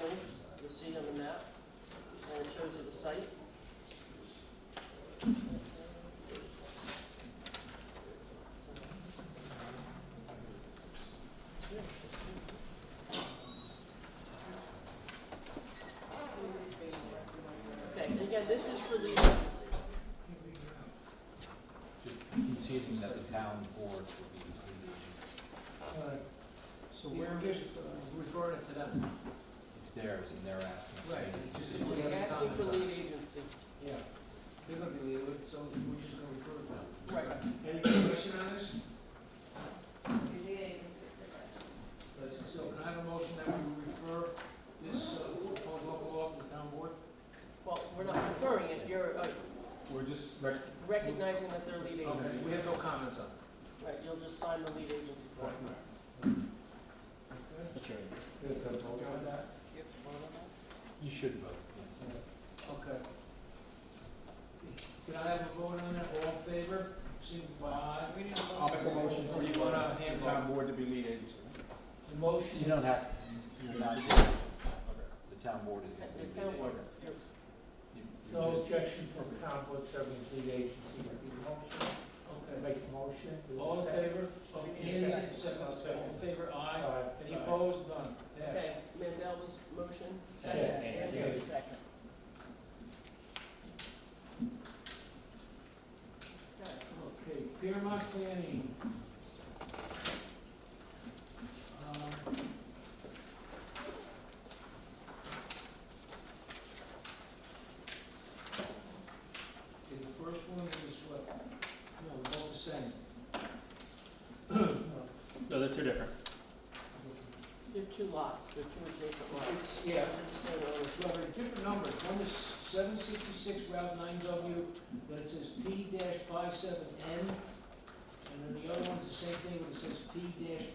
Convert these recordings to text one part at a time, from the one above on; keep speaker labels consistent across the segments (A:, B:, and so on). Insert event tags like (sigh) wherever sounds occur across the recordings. A: you'll see on the map, and it shows you the site. Okay, and again, this is for the,
B: Just conceding that the town boards would be between,
C: So we're just referring it to them.
B: it's theirs and they're asking. for
C: Right,
B: any
C: it just-
B: decision.
A: just asking for lead agency.
C: Yeah. They're gonna be leaving, so we're just gonna refer it to them.
A: Right.
C: Any question on this?
D: Second.
C: So can I have a motion that we refer this uh, proposed local law to the town board?
A: Well, we're not referring it, you're uh,
B: We're just rec-
A: recognizing that they're lead
C: Okay,
A: agency.
C: we have no comments on it.
A: Right, you'll just sign the lead agency form.
C: Okay.
B: you should vote. yes.
C: Okay. Can I have a vote on that, all in favor, signify.
E: I'll make a motion
C: Or
E: to,
C: you want a hand
E: the
C: vote?
E: town board to be lead agency.
C: The motion.
B: You don't
C: is-
B: have, you're not, the town board is gonna be.
A: The town board, you're-
B: You- you
C: No
B: just-
C: objection from town board serving lead agency, motion. Okay.
E: Make a motion.
C: All in favor? Oh,
E: Second.
C: Any,
E: Second.
C: second, all in favor, aye.
E: Aye.
C: Any opposed, none, yes.
A: Okay, Mandela's motion,
C: Second.
A: second,
C: Second.
A: Andrew, second.
C: Okay, Piermont Planning. Um, Okay, the first one is what, no, they're all the same. (clears throat) Uh, No.
E: No, they're two different.
A: They're two lots, they're two adjacent lots.
C: It's, yeah,
A: They're the same owner.
C: well, they're different numbers, one is seven sixty-six Route nine W, but it says P 57 N, and then the other one's the same thing, but it says P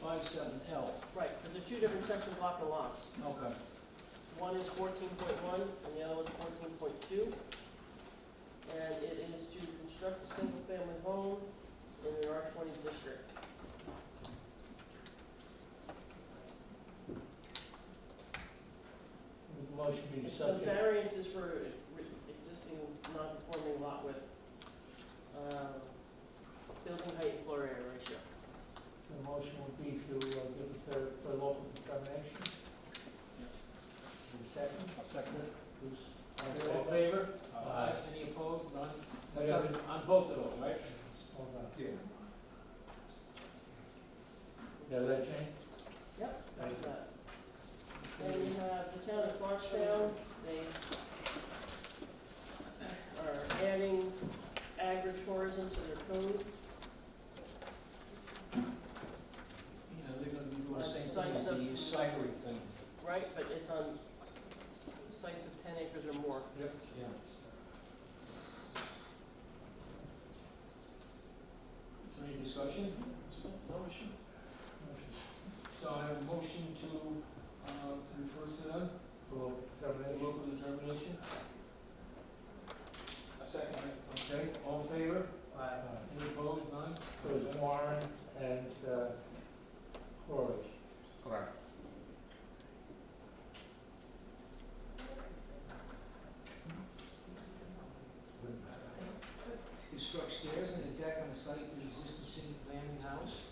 C: 57 L.
A: Right, but they're two different section block of lots.
C: Okay.
A: One is fourteen point one and the other one's fourteen point two. And it is to construct a single-family home in an R twenty district.
C: Motion being
A: So
C: subject.
A: variance is for re- existing non-conforming lot with, uh, building height and floor area ratio.
C: The motion would be to uh, give it the, the local determination. Who's second? Second. Who's, all in favor? Aye. Any opposed? None? That's on, on both of those, right?
E: Yeah.
C: Yeah, that change?
A: Yep.
C: Thank you.
A: Uh, And, uh, the town of Clarkstown, they are adding agritourism to their code.
C: You know, they're gonna be doing the same thing
A: Sites
C: as the
A: of-
C: cyclery thing.
A: Right, but it's on s- sites of ten acres or more.
C: Yep. Yeah. Is there any discussion? Motion. Motion. So I have a motion to, uh, refer to them. Local determination. Local determination. A second. Okay, all in favor? Aye. Any opposed, none? So it's Warren and, uh, Corey.
B: Correct.
C: Construct stairs and a deck on the site of the existing single landing house.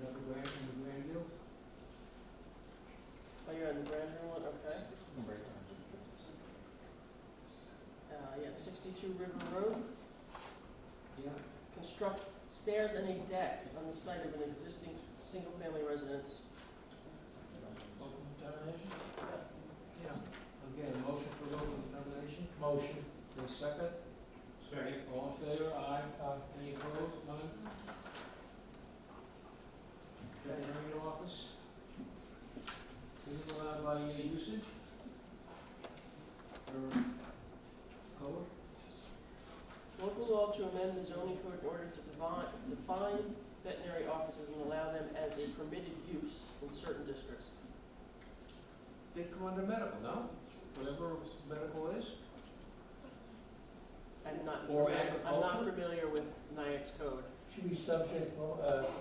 C: Another grand, in Grandview.
A: Oh, you're on the Grandview one, okay. Uh, yeah, sixty-two River Road,
C: Yeah.
A: construct stairs and a deck on the site of an existing single-family residence.
C: Local determination? Yeah. Again, motion for local determination? Motion. The second? Second. All in favor, aye. Uh, Any opposed, none? Veterinary office? Is it allowed by uh, usage? Or code?
A: Local law to amend the zoning code in order to define, define veterinary offices and allow them as a permitted use in certain districts.
C: They come under medical, no? Whatever medical is?
A: I'm not,
C: Or
A: I'm not
C: agriculture?
A: familiar with NIAX code.
C: Should be subject, uh,